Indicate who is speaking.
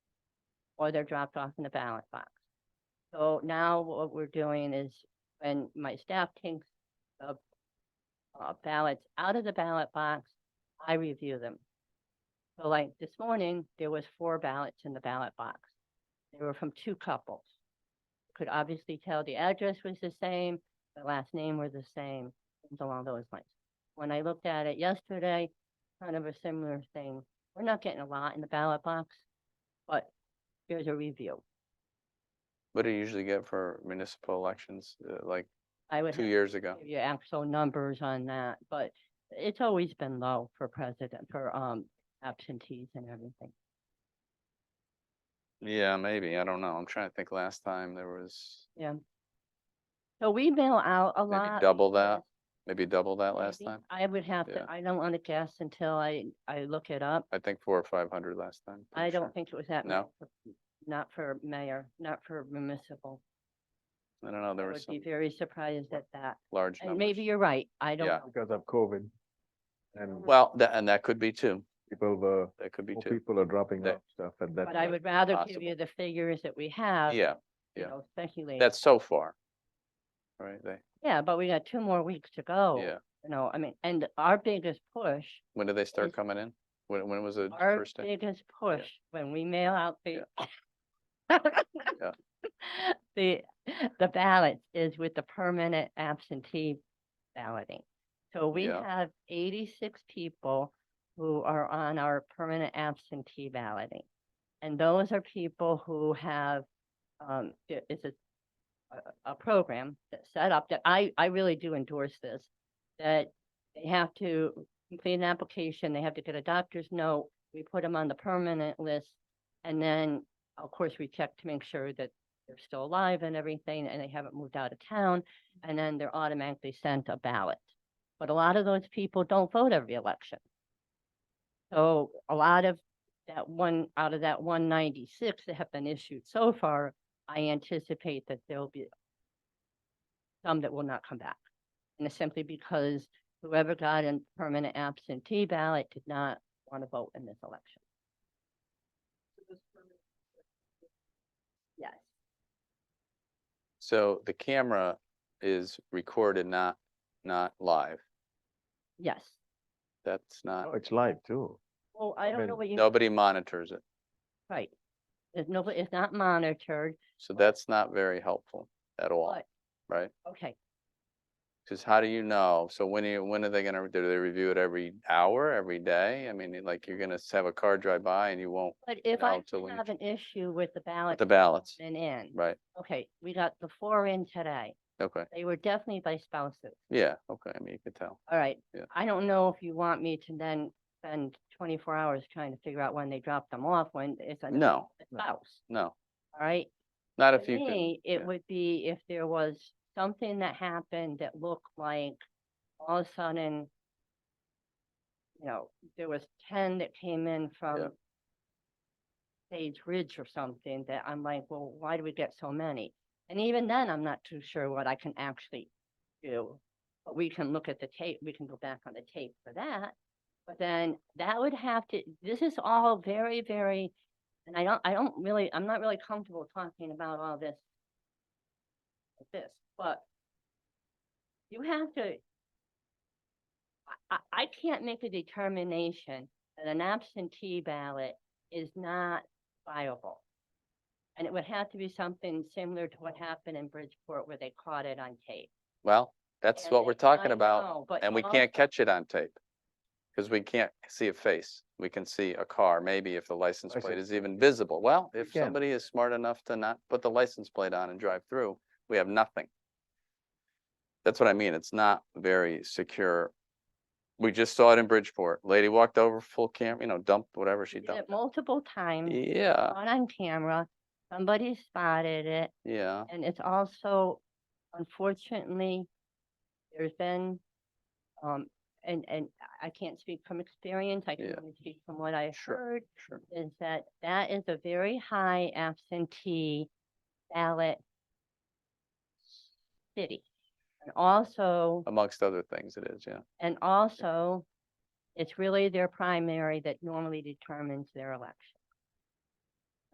Speaker 1: or they're dropped off in the ballot box. So now what we're doing is when my staff takes the uh, ballots out of the ballot box, I review them. So like this morning, there was four ballots in the ballot box. They were from two couples. Could obviously tell the address was the same, the last name were the same, things along those lines. When I looked at it yesterday, kind of a similar thing. We're not getting a lot in the ballot box, but there's a review.
Speaker 2: What do you usually get for municipal elections, uh, like
Speaker 1: I would
Speaker 2: two
Speaker 1: have
Speaker 2: years ago?
Speaker 1: give you actual numbers on that, but it's always been low for president, for um absentees and everything.
Speaker 2: Yeah, maybe, I don't know, I'm trying to think, last time there was
Speaker 1: So we mail out a
Speaker 2: maybe
Speaker 1: lot.
Speaker 2: double that,
Speaker 1: last-
Speaker 2: maybe double that last
Speaker 1: maybe.
Speaker 2: time?
Speaker 1: I would have
Speaker 2: Yeah.
Speaker 1: to, I don't want to guess until I I look it up.
Speaker 2: I think four or five hundred last time.
Speaker 1: I
Speaker 2: pretty sure.
Speaker 1: don't think it was that. many
Speaker 2: No.
Speaker 1: for- Not for mayor, not for municipal.
Speaker 2: I don't know,
Speaker 1: I
Speaker 2: there was
Speaker 1: would be
Speaker 2: some
Speaker 1: very surprised at that.
Speaker 2: large
Speaker 1: And maybe
Speaker 2: numbers.
Speaker 1: you're right. I don't
Speaker 2: Yeah.
Speaker 1: know.
Speaker 3: because of COVID. And
Speaker 2: Well, tha- and that could be two,
Speaker 3: people were,
Speaker 2: that could be
Speaker 3: more
Speaker 2: two,
Speaker 3: people are dropping
Speaker 2: That-
Speaker 3: off stuff at that.
Speaker 1: But I
Speaker 3: point.
Speaker 1: would rather give
Speaker 2: possible.
Speaker 1: you the figures that we have.
Speaker 2: yeah,
Speaker 1: you
Speaker 2: yeah.
Speaker 1: know, Speculate.
Speaker 2: that's so far. Right, they,
Speaker 1: Yeah, but we got two more weeks to go.
Speaker 2: yeah,
Speaker 1: You know, I mean, and our biggest push,
Speaker 2: when did they start
Speaker 1: Is-
Speaker 2: coming in? When, when was the
Speaker 1: our
Speaker 2: first day?
Speaker 1: biggest push when we mail out the the, the ballots is with the permanent absentee balloting. So we
Speaker 2: Yeah.
Speaker 1: have eighty-six people who are on our permanent absentee balloting. And those are people who have, um, i- it's a, a- a program that's set up that I, I really do endorse this. That they have to complete an application, they have to get a doctor's note, we put them on the permanent list. And then, of course, we check to make sure that they're still alive and everything, and they haven't moved out of town, and then they're automatically sent a ballot. But a lot of those people don't vote every election. So a lot of that one, out of that one ninety-six that have been issued so far, I anticipate that there'll be some that will not come back. And it's simply because whoever got a permanent absentee ballot did not want to vote in this election. Yes.
Speaker 2: So the camera is recorded, not, not live,
Speaker 1: Yes.
Speaker 2: that's
Speaker 3: No,
Speaker 2: not,
Speaker 3: It's live too.
Speaker 1: Well, I don't know
Speaker 3: mean,
Speaker 1: what you,
Speaker 2: nobody monitors it.
Speaker 1: right. There's nobody, it's not monitored.
Speaker 2: So that's not very helpful at all,
Speaker 1: But-
Speaker 2: right?
Speaker 1: Okay,
Speaker 2: Because how do you know? So when you, when are they gonna, do they review it every hour, every day? I mean, like, you're gonna s- have a car drive by and you won't,
Speaker 1: but if I
Speaker 2: No, till when you
Speaker 1: have an issue with the ballot.
Speaker 2: the ballots,
Speaker 1: And in,
Speaker 2: right?
Speaker 1: okay, we got the four in today.
Speaker 2: Okay,
Speaker 1: They were definitely by spouses.
Speaker 2: yeah, okay, I mean, you could tell.
Speaker 1: All right.
Speaker 2: Yeah.
Speaker 1: I don't know if you want me to then spend twenty-four hours trying to figure out when they dropped them off, when it's a
Speaker 2: No,
Speaker 3: No.
Speaker 1: spouse,
Speaker 2: no,
Speaker 1: all right?
Speaker 2: not
Speaker 1: To
Speaker 2: if you could,
Speaker 1: me, it
Speaker 2: yeah.
Speaker 1: would be if there was something that happened that looked like all of a sudden, you know, there was ten that came in from Sage Ridge or something that I'm like, well, why do we get so many? And even then, I'm not too sure what I can actually do. But we can look at the tape, we can go back on the tape for that. But then that would have to, this is all very, very, and I don't, I don't really, I'm not really comfortable talking about all this. like This, but you have to. I, I, I can't make a determination that an absentee ballot is not viable. And it would have to be something similar to what happened in Bridgeport where they caught it on tape.
Speaker 2: well, that's
Speaker 1: And
Speaker 2: what we're
Speaker 1: it-
Speaker 2: talking
Speaker 1: I
Speaker 2: about.
Speaker 1: know, but
Speaker 2: And we
Speaker 3: Uh-huh.
Speaker 1: all-
Speaker 2: can't catch it on tape. Because we can't see a face. We can see a car, maybe if the license
Speaker 3: I
Speaker 2: plate
Speaker 3: see.
Speaker 2: is even visible. Well, if
Speaker 3: can.
Speaker 2: somebody is smart enough to not put the license plate on and drive through, we have nothing. That's what I mean. It's not very secure. We just saw it in Bridgeport. Lady walked over full cam, you know, dumped whatever she
Speaker 1: Did it
Speaker 2: dumped.
Speaker 1: multiple times,
Speaker 2: Yeah,
Speaker 1: caught on camera, somebody spotted it.
Speaker 2: yeah.
Speaker 1: And it's also, unfortunately, there's been, um, and, and I can't speak from experience, I can
Speaker 2: Yeah.
Speaker 1: only speak from what I've
Speaker 2: Sure.
Speaker 1: heard,
Speaker 2: Sure.
Speaker 1: is that that is a very high absentee ballot city. And also,
Speaker 2: Amongst other things it is, yeah.
Speaker 1: and also, it's really their primary that normally determines their election.